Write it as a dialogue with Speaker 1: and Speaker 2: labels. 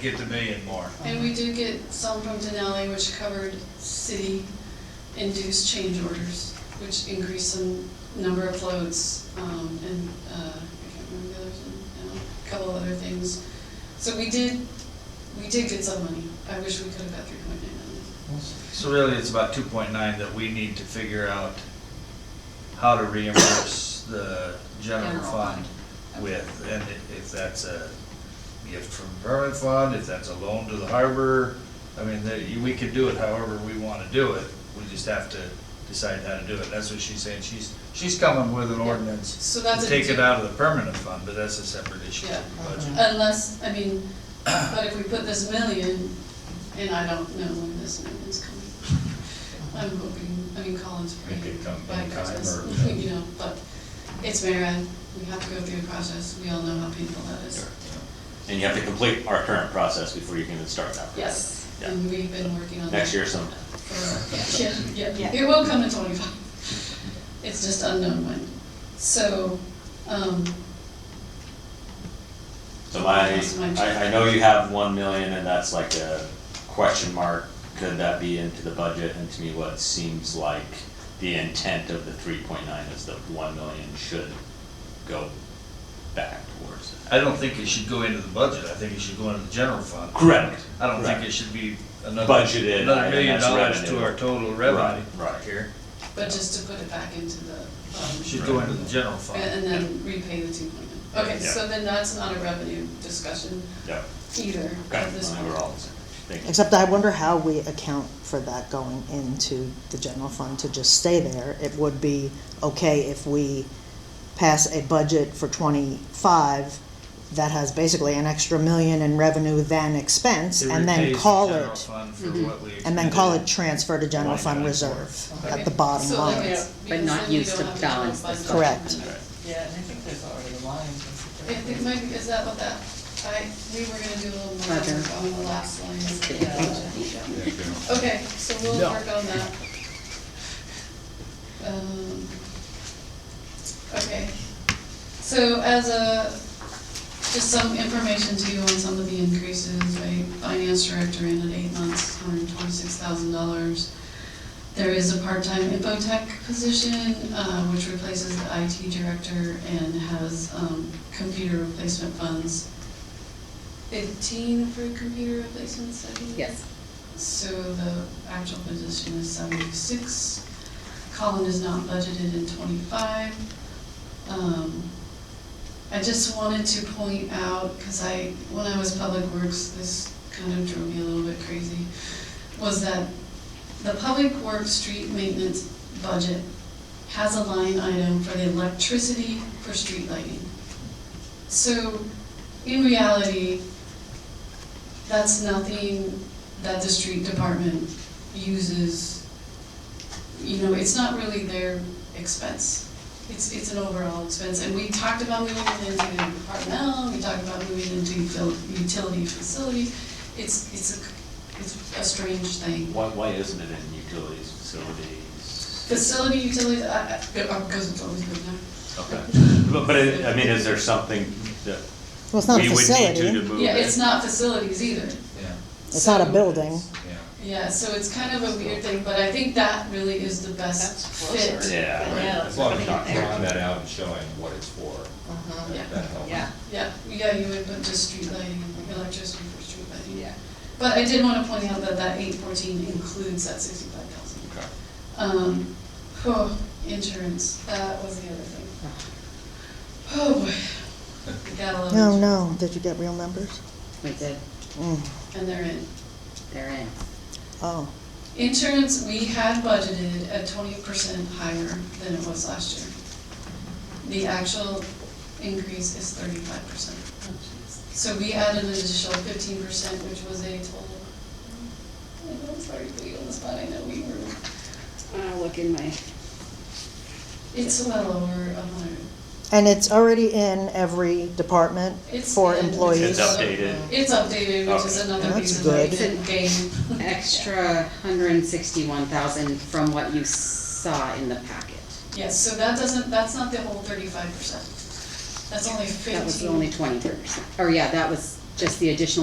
Speaker 1: get the million more.
Speaker 2: And we do get some from Denali, which covered city-induced change orders, which increased some number of loads, um, and, uh, I can't remember the others, and, uh, a couple other things. So we did, we did get some money. I wish we could have got three point nine million.
Speaker 1: So really, it's about two point nine that we need to figure out how to reimburse the general
Speaker 3: General
Speaker 1: fund
Speaker 3: fund.
Speaker 1: with, and i- if that's a gift from permanent fund, if that's a loan to the harbor, I mean, there- you- we could do it however we wanna do it, we just have to decide how to do it, that's what she's saying, she's, she's coming with an ordinance
Speaker 2: So
Speaker 1: to
Speaker 2: that's a.
Speaker 1: take it
Speaker 2: di-
Speaker 1: out of the permanent fund, but that's a separate issue.
Speaker 2: Yeah. Uh-huh.
Speaker 1: But-
Speaker 2: Unless, I mean, but if we put this million, and I don't know when this million's coming. I'm hoping, I mean, Colin's
Speaker 4: It
Speaker 2: praying
Speaker 4: could come
Speaker 2: by
Speaker 4: anytime
Speaker 2: Christmas,
Speaker 4: or-
Speaker 2: you know, but it's Marin, we have to go through a process, we all know how painful that is.
Speaker 5: And you have to complete our current process before you can even start that.
Speaker 2: Yes, Mm-hmm.
Speaker 5: Yeah.
Speaker 2: and we've been working on that.
Speaker 5: Next year sometime.
Speaker 2: for- Yeah, yeah,
Speaker 3: Yeah.
Speaker 2: it will come to twenty-five, it's just unknown when. So, um,
Speaker 5: So my,
Speaker 2: That's my-
Speaker 5: I, I know you have one million and that's like a question mark. Could that be into the budget? And to me, what seems like the intent of the three point nine is that one million should go back towards it.
Speaker 1: I don't think it should go into the budget, I think it should go into the general fund.
Speaker 5: Correct.
Speaker 1: I don't think
Speaker 5: Correct.
Speaker 1: it should be another.
Speaker 5: Budgeted
Speaker 1: Another
Speaker 5: item
Speaker 1: million
Speaker 5: that's
Speaker 1: dollars
Speaker 5: revenue.
Speaker 1: to our total revenue.
Speaker 5: Right, right.
Speaker 1: Here,
Speaker 2: but just to put it back into the, um.
Speaker 1: should go into the general fund.
Speaker 2: And then repay the two point nine. Okay,
Speaker 5: Yeah.
Speaker 2: so then that's not a revenue discussion
Speaker 5: Yep.
Speaker 2: either
Speaker 5: Okay,
Speaker 2: at this
Speaker 5: I
Speaker 2: point.
Speaker 5: think we're all, thank you.
Speaker 6: Except I wonder how we account for that going into the general fund to just stay there. It would be okay if we pass a budget for twenty-five that has basically an extra million in revenue than expense, and then call
Speaker 1: It repays the general
Speaker 6: it,
Speaker 1: fund for
Speaker 2: Mhm.
Speaker 1: what we.
Speaker 6: and then call it
Speaker 1: expended.
Speaker 6: transfer to general
Speaker 1: Line
Speaker 6: fund
Speaker 1: item.
Speaker 6: reserve at the
Speaker 2: Okay,
Speaker 6: bottom
Speaker 2: so like
Speaker 6: line.
Speaker 2: it's-
Speaker 7: But
Speaker 2: because
Speaker 7: not
Speaker 2: then you
Speaker 7: used
Speaker 2: don't
Speaker 7: to
Speaker 2: have a
Speaker 7: balance
Speaker 2: general
Speaker 7: the
Speaker 2: fund.
Speaker 6: Correct.
Speaker 5: All right.
Speaker 7: Yeah, and I think there's already lines.
Speaker 2: I think, Mike, is that what that, I, we were gonna do a little more
Speaker 7: Roger.
Speaker 2: work on the last line. of the
Speaker 7: Yeah.
Speaker 2: budget. Okay, so we'll work on that. Um, Okay, so as a, just some information to you on some of the increases, right? Finance director in at eight months, hundred twenty-six thousand dollars. There is a part-time infotech position, uh, which replaces the IT director and has, um, computer replacement funds. Fifteen for computer replacements, I believe?
Speaker 7: Yes.
Speaker 2: So the actual position is seventy-six. Colin is not budgeted in twenty-five. Um, I just wanted to point out, because I, when I was public works, this kind of drove me a little bit crazy, was that the public works street maintenance budget has a line item for the electricity for street lighting. So, in reality, that's nothing that the street department uses. You know, it's not really their expense. It's, it's an overall expense, and we talked about moving it into the departmental, we talked about moving it into util- utility facility. It's, it's a, it's a strange thing.
Speaker 5: Why, why isn't it in utilities facilities?
Speaker 2: Facility utilities, I, I, because it's always been there.
Speaker 5: Okay. But, but it- I mean, is there something that
Speaker 6: Well, it's not a
Speaker 5: we would need to to
Speaker 6: facility,
Speaker 5: move it?
Speaker 2: Yeah, it's not facilities either.
Speaker 4: Yeah,
Speaker 6: it's not a
Speaker 2: So-
Speaker 6: building.
Speaker 4: yeah.
Speaker 2: Yeah, so it's kind of a weird thing, but I think that really is the best
Speaker 7: That's closer.
Speaker 2: fit.
Speaker 5: Yeah. right.
Speaker 7: Yeah.
Speaker 4: As long as you're
Speaker 7: Putting it there.
Speaker 4: drawing that out and showing what it's for,
Speaker 7: Uh-huh,
Speaker 2: Yeah.
Speaker 4: that that helps.
Speaker 7: yeah,
Speaker 2: Yeah, yeah, you would put just street lighting, electricity for street lighting.
Speaker 7: yeah.
Speaker 2: But I did wanna point out that that eight fourteen includes that sixty-five thousand.
Speaker 5: Okay.
Speaker 2: Um, oh, insurance, that was the other thing. Oh boy, we got a lot
Speaker 6: Ah. No,
Speaker 2: of,
Speaker 6: no, did you get real numbers?
Speaker 7: We did,
Speaker 6: Mm,
Speaker 2: and they're in.
Speaker 7: they're in.
Speaker 6: oh,
Speaker 2: Insurance, we had budgeted at twenty percent higher than it was last year. The actual increase is thirty-five percent. So we added an additional fifteen percent, which was a total. I know, I'm sorry to put you on the spot, I know we were,
Speaker 7: I'll look in my,
Speaker 2: it's well over a hundred.
Speaker 6: and it's already in every department
Speaker 2: It's
Speaker 6: for
Speaker 2: in-
Speaker 6: employees.
Speaker 5: It's updated.
Speaker 2: It's updated, which is another
Speaker 6: Okay.
Speaker 2: piece of
Speaker 6: That's
Speaker 7: good.
Speaker 2: like game.
Speaker 7: extra hundred and sixty-one thousand from what you saw in the packet.
Speaker 2: Yes, so that doesn't, that's not the whole thirty-five percent. That's only fifteen.
Speaker 7: That was only twenty percent, or yeah, that was just the additional